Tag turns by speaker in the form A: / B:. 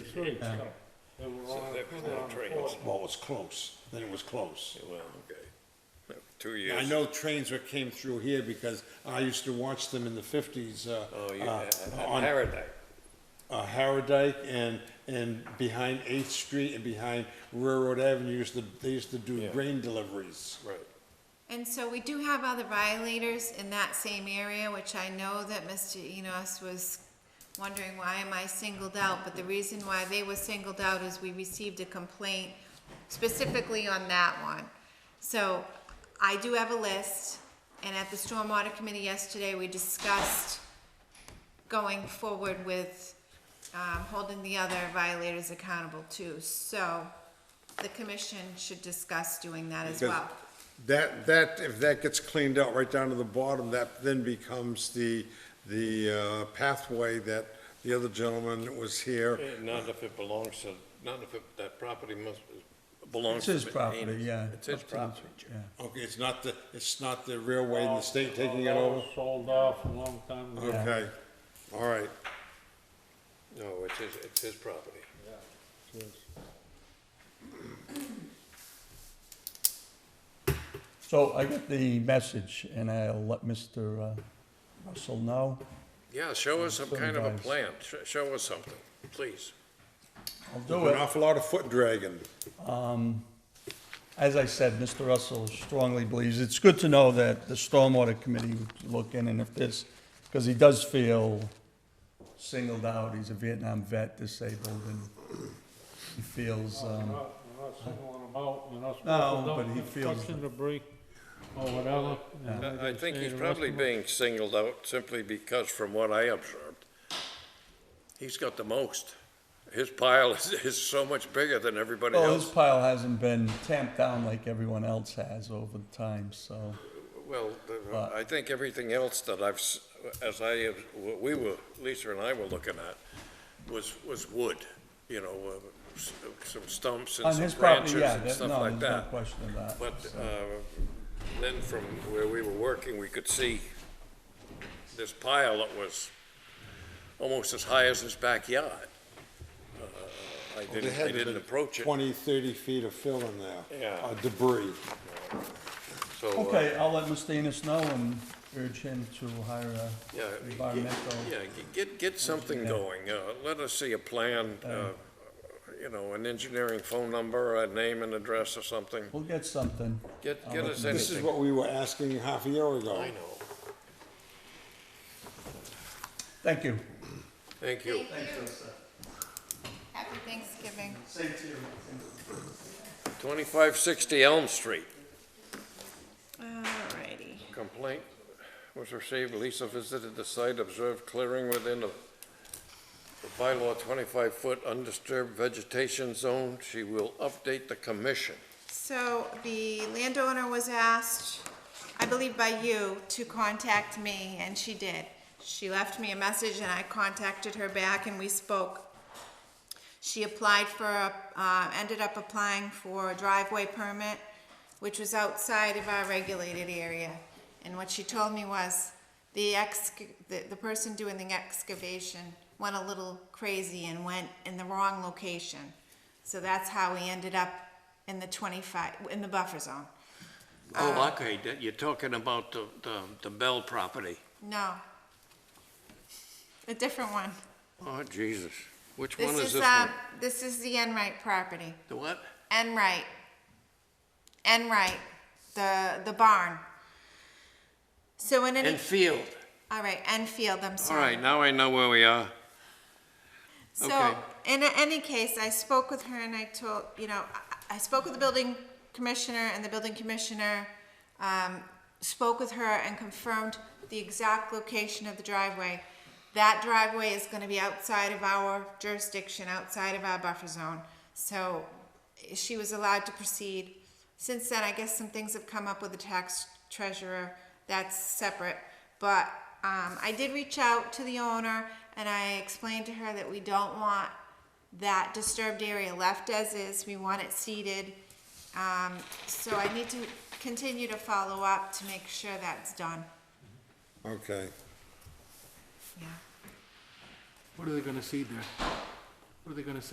A: street.
B: Yeah.
A: And we're
C: So
A: on
C: there was
A: we're
C: no
A: on a
C: trains.
A: corner.
D: Well, it was close, then it was close.
C: Well, okay. Two
D: I
C: years.
D: know trains that came through here because I used to watch them in the fifties, uh,
C: Oh, you,
D: uh,
C: at
D: on
C: Harrodite.
D: uh, Harrodike and, and behind Eighth Street and behind Railroad Avenue, used to, they used to do grain deliveries.
C: Right.
E: And so we do have other violators in that same area, which I know that Mr. Enos was wondering, why am I singled out? But the reason why they were singled out is we received a complaint specifically on that one. So I do have a list, and at the Stormwater Committee yesterday, we discussed going forward with, um, holding the other violators accountable too. So the commission should discuss doing that as well.
D: That, that, if that gets cleaned out right down to the bottom, that then becomes the, the uh, pathway that the other gentleman that was here.
C: Eh, Not if it belongs to, not if it- that property must, belongs
B: It's
C: to.
B: his
C: the
B: property,
C: Ames.
B: yeah.
C: It's his
B: up to the-
C: property.
B: yeah.
D: Okay, it's not the, it's not the railway and the state
A: Well,
D: taking it
A: that was
D: over?
A: Sold off a long time ago.
D: Okay, all right.
C: No, it's his, it's his property.
B: So I got the message, and I'll let Mr. uh, Russell know.
C: Yeah, show us some
B: Some
C: kind of a
B: guys.
C: plan. Sh- Show us something, please.
B: I'll do
D: An
B: it.
D: awful lot of foot dragging.
B: As I said, Mr. Russell strongly believes, it's good to know that the Stormwater Committee would look in, and if this, because he does feel singled out, he's a Vietnam vet, disabled, and he feels,
A: We're
B: um,
A: not, we're not singling them out, we're not.
B: No,
A: singling
B: but he
A: out
B: feels-
A: construction debris or whatever. and
C: I I
A: they
C: think
A: say
C: he's
A: the rest
C: probably
A: of 'em-
C: being singled out simply because from what I observed, he's got the most. His pile is, is so much bigger than everybody
B: well, his
C: else.
B: oh, pile hasn't been tamped down like everyone else has over time, so.
C: Well, the-
B: But-
C: I think everything else that I've, s- as I, have- what we were, Lisa and I were looking at, was, was wood, you know, uh, s- some stumps and
B: On
C: some
B: his property,
C: branches
B: yeah,
C: and
B: that,
C: stuff
B: no,
C: like
B: there's no
C: that.
B: question of that.
C: But
B: so.
C: uh, then from where we were working, we could see this pile that was almost as high as his backyard. Uh, I
D: They
C: didn't,
D: had
C: I
D: to
C: didn't
D: be
C: approach it,
D: 20, 30 feet of fill in there.
C: Yeah.
D: Uh, Debris.
C: so. uh,
B: Okay, I'll let Mr. Enos know and urge him to hire a
C: Yeah, get-
B: environmental.
C: yeah, g- get, get something going. Uh, Let us see a plan, uh, you know, an engineering phone number, a name and address or something.
B: We'll get something.
C: Get,
B: I'll
C: get
B: let
C: us
B: you know.
D: This is
C: anything.
D: what we were asking half a year ago.
C: I know.
B: Thank you.
C: Thank you.
E: Happy Thanksgiving.
B: Same to you.
C: 2560 Elm Street.
E: Alrighty.
C: Complaint was received, Lisa visited the site, observed clearing within the the bylaw 25-foot undisturbed vegetation zone. She will update the commission.
E: So the landowner was asked, I believe by you, to contact me, and she did. She left me a message and I contacted her back and we spoke. She applied for, a- uh, ended up applying for a driveway permit, which was outside of our regulated area. And what she told me was, the ex, the, the person doing the excavation went a little crazy and went in the wrong location. So that's how we ended up in the twenty-five, in the buffer zone.
C: Oh, okay, you're talking about the, the Bell property.
E: No. A different one.
C: Oh, Jesus. Which one
E: This
C: is
E: is,
C: this
E: uh,
C: one?
E: this is the Enright property.
C: The what?
E: Enright. Enright, the, the barn. So in any,
C: Enfield.
E: all right, Enfield, I'm
C: All
E: sorry.
C: right, now I know where we are.
E: So,
C: Okay.
E: in a- any case, I spoke with her and I told, you know, I- I spoke with the building commissioner and the building commissioner um, spoke with her and confirmed the exact location of the driveway. That driveway is gonna be outside of our jurisdiction, outside of our buffer zone. So she was allowed to proceed. Since then, I guess some things have come up with the tax treasurer, that's separate. But um, I did reach out to the owner and I explained to her that we don't want that disturbed area left as is, we want it seeded. Um, so I need to continue to follow up to make sure that's done,
D: Okay.
E: yeah.
F: What are they gonna see there? What are they gonna say?